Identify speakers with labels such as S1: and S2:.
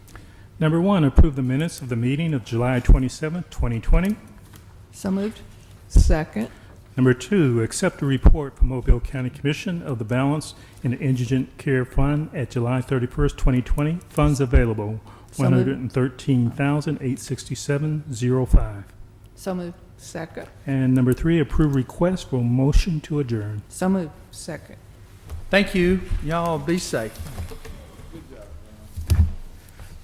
S1: Number one, approve the minutes of the meeting of July 27, 2020.
S2: So moved. Second.
S1: Number two, accept a report from Mobile County Commission of the balance in the Indigent Care Fund at July 31st, 2020. Funds available,
S2: So moved.
S1: 113867
S2: So moved. Second.
S1: And number three, approve request for motion to adjourn.
S2: So moved. Second.
S3: Thank you. Y'all be safe.